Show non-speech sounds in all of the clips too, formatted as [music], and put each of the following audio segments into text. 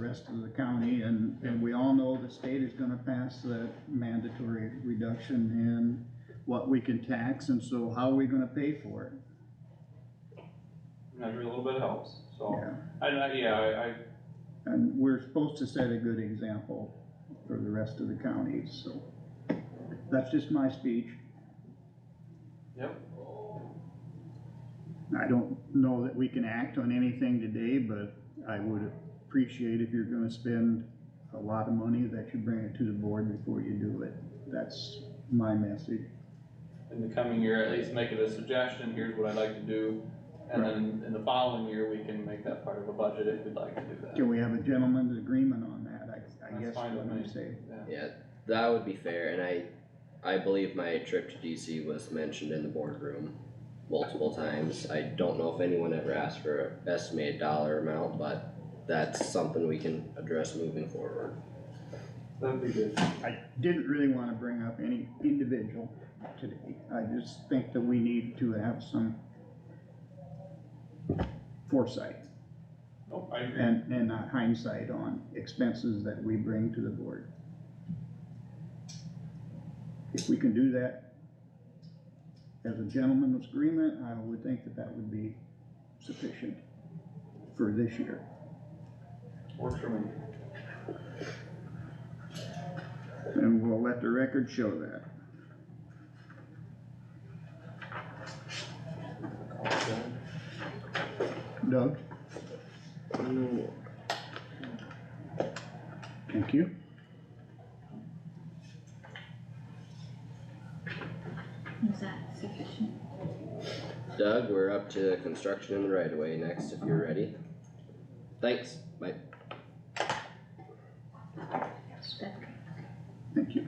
rest of the county, and, and we all know the state is gonna pass the mandatory reduction in what we can tax, and so how are we gonna pay for it? measure a little bit helps, so, Yeah, I, I, yeah, I, I, and we're supposed to set a good example for the rest of the counties, so. That's just my speech. yep, I don't know that we can act on anything today, but I would appreciate if you're gonna spend a lot of money, that you bring it to the board before you do it. That's my message. in the coming year, at least make it a suggestion, here's what I'd like to do. And then in the following year, we can make that part of a budget if we'd like to do that. Can we have a gentleman's agreement on that? I, I That's guess fine what with I'm me. saying. Yeah, that would be fair, and I, I believe my trip to DC was mentioned in the boardroom multiple times. I don't know if anyone ever asked for an estimated dollar amount, but that's something we can address moving forward. That'd be good. I didn't really wanna bring up any individual today. I just think that we need to have some foresight Oh, I agree. and, and not hindsight on expenses that we bring to the board. If we can do that as a gentleman's agreement, I would think that that would be sufficient for this year. Works for me. And we'll let the record show that. Doug, thank you. Is that sufficient? Doug, we're up to construction in the right of way next, if you're ready. Thanks, bye. Thank you.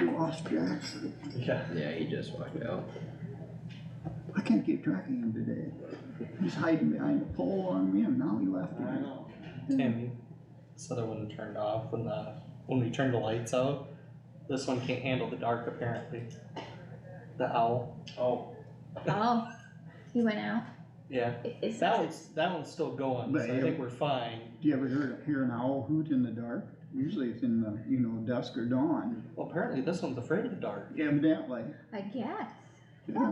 You Lost Jackson. Yeah. Yeah, he just walked out. I can't keep track of him today. He's hiding behind a pole on me and now he left I again. know. Hmm. Tammy said it wouldn't turned off when the, when we turned the lights out. This one can't handle the dark apparently. The owl, Oh, [laughs] Oh, he went out? yeah. I- Is That that, one's, that one's still going, so I think we're fine. Do you ever hear, hear an owl hoot in the dark? Usually it's in the, you know, dusk or dawn, Well, apparently this one's afraid of the dark. evidently. I guess. Yeah.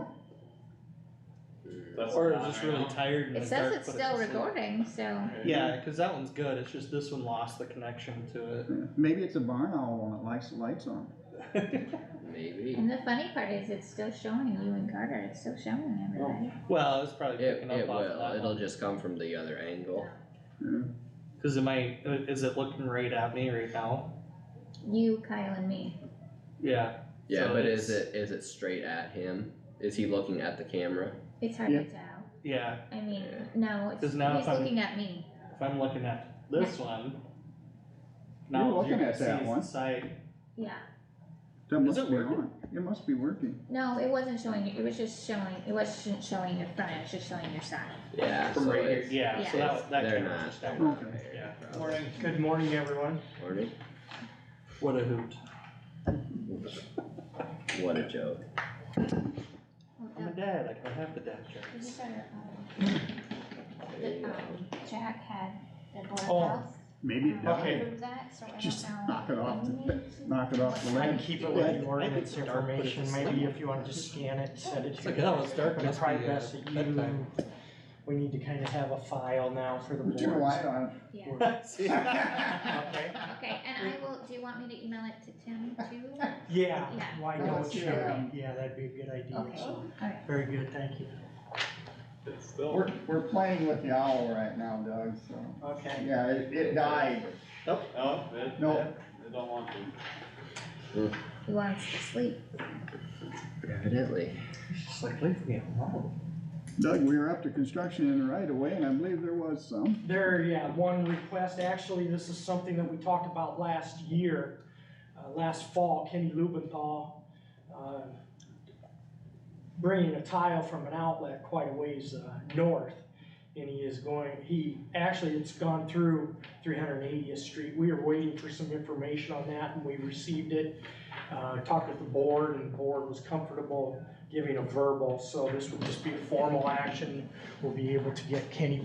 that's. Or not it's just right really now. tired in the dark. It says it's but still just like- recording, so Okay. Yeah, cause that one's good, it's just this one lost the connection to Yeah. Maybe it's a barn owl and it likes the lights on. it. Maybe, and the funny part is it's still showing you and Carter, it's still showing everybody. Oh, Well, it's probably it, picking it up off of will, that it'll one. just come from the other angle. Yeah. Cause it might, is it looking right at me right now? You, Kyle and me. Yeah, Yeah, So but is it's- it, is it straight at him? Is he looking at the camera? It's hard Yeah. to tell. yeah, I mean, Yeah. no, it's, he's Because now if I'm- looking at me. If I'm looking at this one. now You're looking you at can that see one. the side. Yeah. That Is must it be working? on. It must be working. No, it wasn't showing you, it was just showing, it wasn't showing your front, it was just showing your side. Yeah, From so right here, it's- yeah, so that, that They're camera's not, just they're down. not Okay. there. Morning, good morning, everyone. Morning, What a hoot. what a joke. Well, I'm a um, dad, I can have the dad this jokes. is our, um, the, Yeah. um, Jack had the board Oh. house. Maybe it does. Okay. Approve that, so I don't Just know knock it off the- when we need to- knock it off the what I time can ledge. keep it do with the ordinance information, maybe if you want to just scan it, send it It's to like, me. oh, it's dark, But must it's be, probably uh, best that you, bedtime. we need to kind of have a file now for the Turn the light [laughs] board. on. Yeah, See? Okay, okay, and I will, do you want me to email it to Tim [laughs] too? [laughs] yeah, Yeah. why Oh, don't it's you, here. yeah, that'd be a good idea, Okay, so, alright. very good, thank you. It's still, We're, we're playing with the owl right now, Doug, so. Okay. Yeah, it, it died. no, it, No. it, it don't want to. He wants to sleep. Evidently, It's Just like, leave me alone. Doug, we were up to construction in the right of way and I believe there was some. There, yeah, one request, actually, this is something that we talked about last year, uh, last fall, Kenny Lubenthal, uh, bringing a tile from an outlet quite a ways, uh, north, and he is going, he, actually, it's gone through three hundred and eightieth street, we were waiting for some information on that, and we received it. Uh, talked with the board, and the board was comfortable giving a verbal, so this would just be a formal action, we'll be able to get Kenny